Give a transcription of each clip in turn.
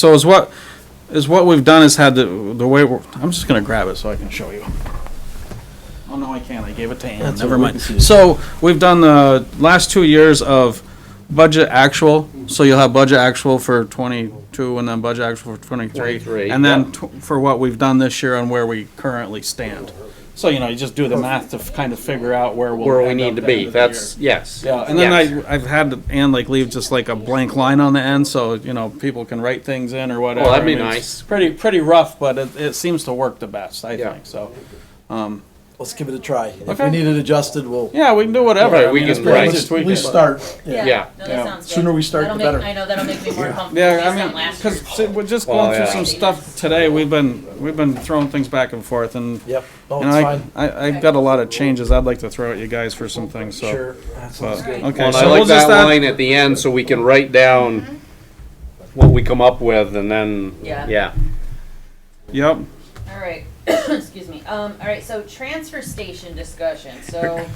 So is what, is what we've done is had the, the way, we're- I'm just gonna grab it so I can show you. Oh, no, I can't, I gave it to Ann, That's never all right, mind. we can see. So, we've done the last two years of budget actual, so you'll have budget actual for twenty-two and then budget actual for twenty-three. 23, And then yeah. tw- for what we've done this year and where we currently stand. So, you know, you just do the math to f- kind of figure out where we'll. where we end up need to at the end be. of the That's, year. yes. Yeah, and then yes. I, I've had Ann like leave just like a blank line on the end, so, you know, people can write things in or whatever. Oh, that'd be I mean, it's nice. Pretty, pretty rough, but it, it seems to work the best, I Yeah. think, so. Let's give it a try. If Okay. we need it adjusted, we'll. Yeah, we can do whatever. Right, I we mean, it's can pretty write. much Let's just tweak at least it. start. Yeah. No, Yeah. that sounds good. Sooner we start, That'll the make- better. I know, that'll make me more comfortable. Yeah, I based on mean, last year's because we're just Well, going through Oh, yeah. some stuff today. We've been, we've been throwing things back and forth and. Yep, no, You it's know, I, fine. I, I've got a lot of changes I'd like to throw at you guys for some things, so. uh, Sure, that sounds But, good. okay, Well, and I so we'll like just that add- line at the end so we can write down what we come up with and then, Yeah. yeah. Yep, All right, excuse me. Um, all right, so transfer station discussion, so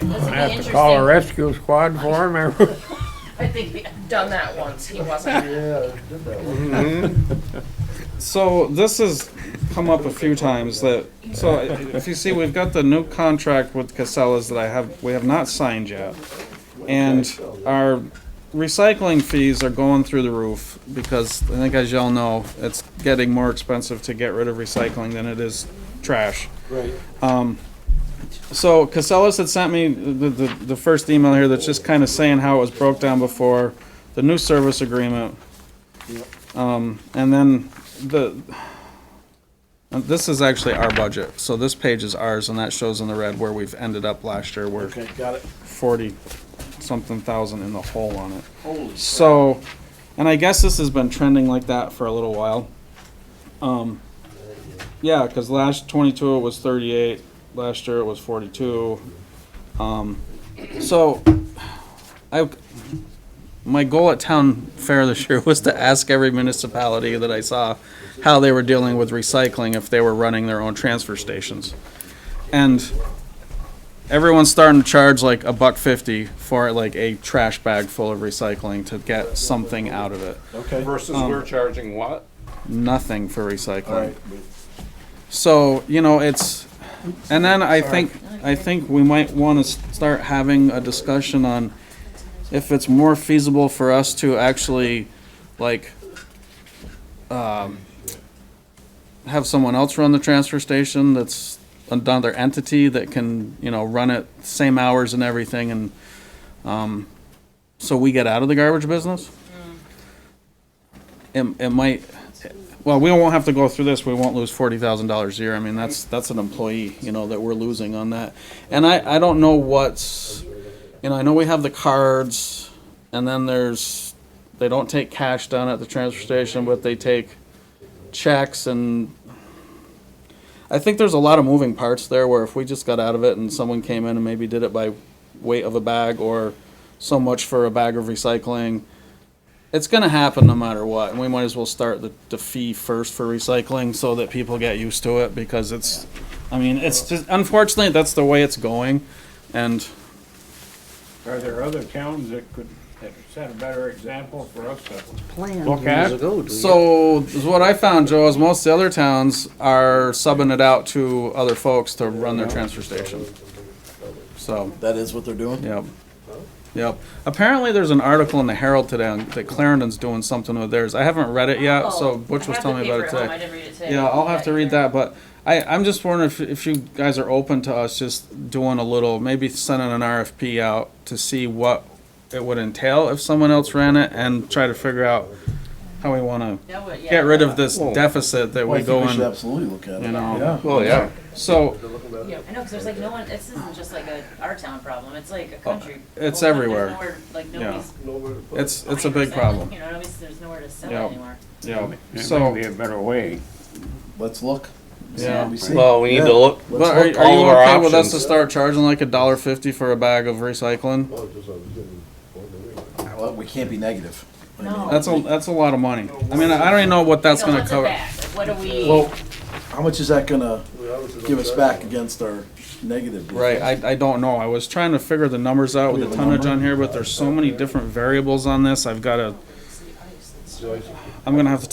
this will be Have to call a interesting. rescue squad for him. I think we have done that once, he wasn't. so this has come up a few times that, so i- if you see, we've got the new contract with Casellas that I have, we have not signed yet. And our recycling fees are going through the roof because I think as y'all know, it's getting more expensive to get rid of recycling than it is trash. Um, Right. So Casellas had sent me the, the, the first email here that's just kind of saying how it was broke down before, the new service agreement. Um, and then the, and this is actually our budget, so this page is ours and that shows in the red where we've ended up last year, we're Okay, got it. forty something thousand in the hole on it. So, and I guess this has been trending like that for a little while. Um, yeah, because last twenty-two it was thirty-eight, last year it was forty-two. Um, so, I, my goal at town fair this year was to ask every municipality that I saw how they were dealing with recycling if they were running their own transfer stations. And everyone's starting to charge like a buck fifty for like a trash bag full of recycling to get something out of it. Okay. Versus Um, we're charging what? Nothing for recycling. Alright. So, you know, it's, and then I think, I think we might want to start having a discussion on if it's more feasible for us to actually, like, um, have someone else run the transfer station that's another entity that can, you know, run it same hours and everything and, um, so we get out of the garbage business? It, it might, well, we won't have to go through this, we won't lose forty thousand dollars a year, I mean, that's, that's an employee, you know, that we're losing on that. And I, I don't know what's, you know, I know we have the cards, and then there's, they don't take cash down at the transfer station, but they take checks and I think there's a lot of moving parts there where if we just got out of it and someone came in and maybe did it by weight of a bag or so much for a bag of recycling, it's gonna happen no matter what, and we might as well start the, the fee first for recycling so that people get used to it, because it's, I mean, it's just, unfortunately, that's the way it's going, and Are there other towns that could that set a better example for us to look at? So is what I found, Joe, is most of the other towns are subbing it out to other folks to run their transfer station. So, That is what they're doing? yep, yep. Apparently, there's an article in the Herald today on- that Clarendon's doing something with theirs. I haven't read it yet, so Oh, Butch I was have telling the me about paper it at home, I today. didn't read it today. Yeah, I'll have to read either. that, but I, I'm just wondering if, if you guys are open to us just doing a little, maybe sending an RFP out to see what it would entail if someone else ran it and try to figure out how we wanna That would- yeah. get rid of this Well, deficit that Well, we I think go we should in, absolutely look at it. you know. Yeah. Well, yeah. So, Yeah, I know, because there's like no one, this isn't just like a, our town problem, it's like a country. Uh, it's problem. everywhere. There's nowhere- Like Yeah. nobody's. it's, it's a buying or big selling, problem, You know, nobody's, there's nowhere to sell Yeah. anymore. yeah, It may so, be a better way. Let's look. See Yeah. what we see. Well, we need Yeah. to look. but Let's are, look. are all you of our okay with us to options. start charging like a dollar fifty for a bag of recycling? Well, we can't be negative. I mean, No. That's a, that's a lot of money, I mean, I don't even know what that's So gonna what's it cover. back? Like, What do we, Well, how much is that gonna give us back against our negative? Right, I, I don't know, I was trying to figure the numbers out with Do we the have a tonnage on number? here, but there's so many different variables on this, I've gotta. I'm gonna have to